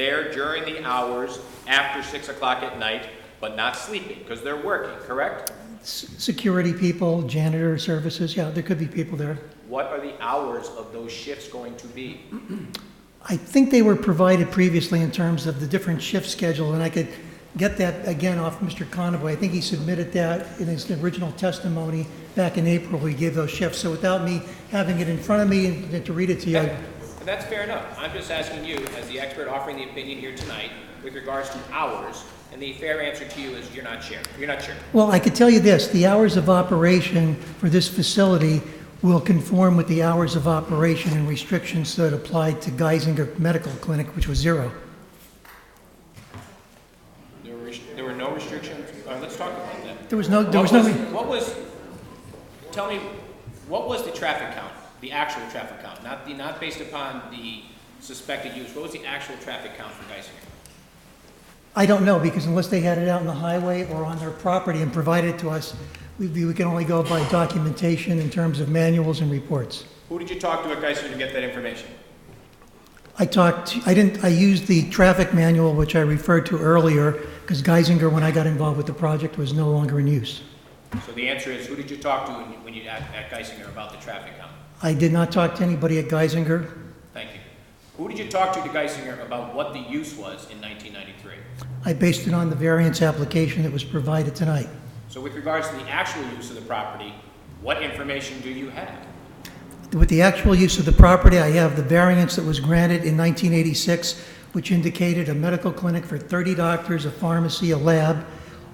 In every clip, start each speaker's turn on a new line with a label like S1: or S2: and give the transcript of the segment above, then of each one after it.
S1: there during the hours after six o'clock at night, but not sleeping, because they're working, correct?
S2: S- Security people, janitor services, yeah, there could be people there.
S1: What are the hours of those shifts going to be?
S2: I think they were provided previously in terms of the different shift schedule, and I could get that again off Mr. Conaway. I think he submitted that in his original testimony back in April, he gave those shifts. So without me having it in front of me and to read it to you, I-
S1: And that's fair enough. I'm just asking you, as the expert offering the opinion here tonight, with regards to hours, and the fair answer to you is you're not sure, you're not sure.
S2: well, I could tell you this, the hours of operation for this facility will conform with the hours of operation and restrictions that applied to Geisinger Medical Clinic, which was zero.
S1: There were, res- there were no restrictions, all right, let's talk about that.
S2: There was no, Oh, there was no...
S1: What What was, tell me, what was the traffic count, the actual traffic count, not the, not based upon the suspected use, what was the actual traffic count for Geisinger?
S2: I don't know, because unless they had it out on the highway or on their property and provided it to us, we, we can only go by documentation in terms of manuals and reports.
S1: Who did you talk to at Geisinger to get that information?
S2: I talked, I didn't, I used the traffic manual, which I referred to earlier, because Geisinger, when I got involved with the project, was no longer in use.
S1: So the answer is, who did you talk to when you- when you, at at Geisinger about the traffic count?
S2: I did not talk to anybody at Geisinger.
S1: Thank you. Who did you talk to at Geisinger about what the use was in 1993?
S2: I based it on the variance application that was provided tonight.
S1: So with regards to the actual use of the property, what information do you have?
S2: With the actual use of the property, I have the variance that was granted in 1986, which indicated a medical clinic for 30 doctors, a pharmacy, a lab,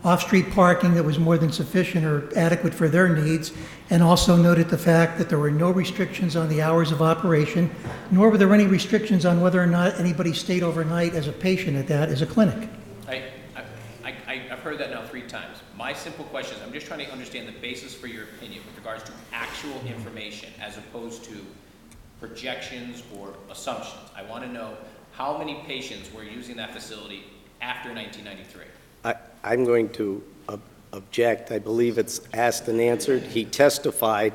S2: off-street parking that was more than sufficient or adequate for their needs, and also noted the fact that there were no restrictions on the hours of operation, nor were there any restrictions on whether or not anybody stayed overnight as a patient at that, as a clinic.
S1: I, I, I- I've heard that now three times. My simple question is, I'm just trying to understand the basis for your opinion with regards to actual information as opposed to projections or assumptions. I want to know how many patients were using that facility after 1993?
S3: I- I'm going to ob- object. I believe it's asked and answered. He testified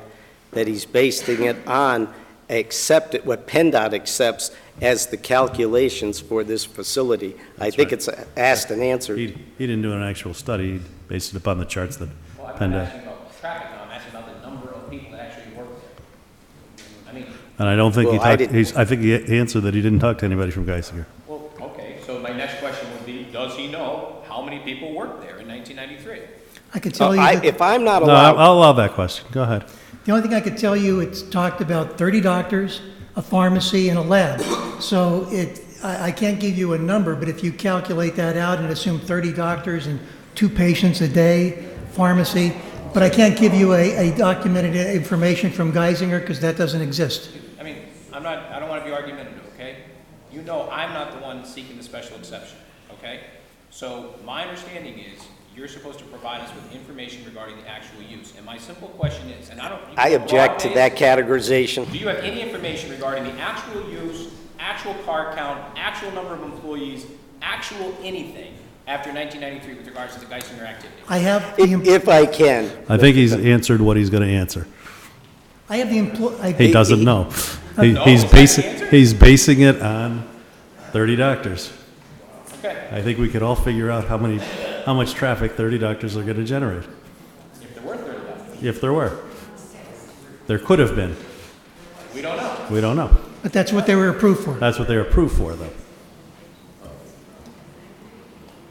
S3: that he's basing it on accepted, what PennDOT accepts as the calculations for this facility. I think
S4: right.
S3: it's asked and
S4: He,
S3: answered. Uh,
S4: he didn't do an actual study, he based it upon the charts that
S1: Well, I'm not
S4: Penda.
S1: asking about traffic now, I'm asking about the number of people that actually work there. I mean,
S4: And I don't think he
S3: Well, I
S4: talked,
S3: didn't-
S4: he's, I think he he answered that he didn't talk to anybody from Geisinger.
S1: well, okay, so my next question would be, does he know how many people worked there in 1993?
S2: I could
S3: So
S2: tell you
S3: Uh, I-
S2: that,
S3: If I'm not
S4: No, I'll
S3: allowed,
S4: I'll allow that question, go ahead.
S2: the only thing I could tell you, it's talked about 30 doctors, a pharmacy, and a lab. So it, I, I can't give you a number, but if you calculate that out and assume 30 doctors and two patients a day, pharmacy, but I can't give you a, a documented information from Geisinger because that doesn't exist.
S1: I mean, I'm not, I don't want to be argumentative, okay? You know I'm not the one seeking the special exception, okay? So my understanding is, you're supposed to provide us with information regarding the actual use. And my simple question is, and I don't. you
S3: I
S1: can
S3: object to that
S1: broad-based-
S3: categorization.
S1: Do you have any information regarding the actual use, actual car count, actual number of employees, actual anything after 1993 with regards to the Geisinger activity?
S2: I have the,
S3: If
S2: em-
S3: if I can.
S4: I think he's answered what he's gonna answer.
S2: I have the employ, I,
S4: He doesn't know. He-
S1: No,
S4: He's
S1: is that the
S4: basing,
S1: answer?
S4: he's basing it on thirty doctors.
S1: Okay,
S4: I think we could all figure out how many, how much traffic thirty doctors are gonna generate,
S1: if there were 30 left,
S4: if there were. There could have been,
S1: we don't know.
S4: we don't know.
S2: but that's what they were approved for.
S4: That's what they were approved for, though.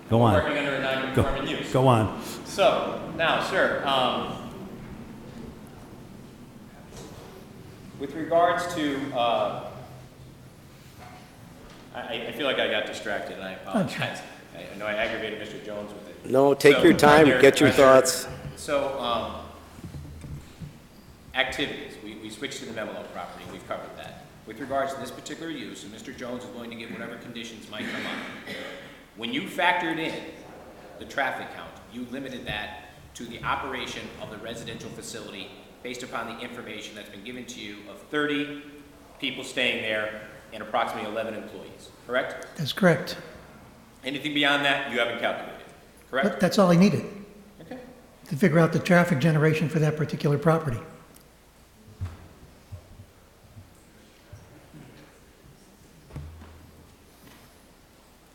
S4: Go on.
S1: Working under a non-conforming use.
S4: Go on.
S1: So, now, sir, um, with regards to, uh, I- I, I feel like I got distracted, and I apologize. I I know I aggravated Mr. Jones with it.
S3: No, take
S1: So,
S3: your time,
S1: there-
S3: get your
S1: right there.
S3: thoughts.
S1: So, um, activities, we, we switched to the Memelo property, we've covered that. With regards to this particular use, and Mr. Jones is willing to give whatever conditions might come up, when you factored in the traffic count, you limited that to the operation of the residential facility based upon the information that's been given to you of thirty people staying there and approximately eleven employees, correct?
S2: That's correct.
S1: Anything beyond that, you haven't calculated, correct?
S2: But that's all I needed
S1: Okay.
S2: to figure out the traffic generation for that particular property.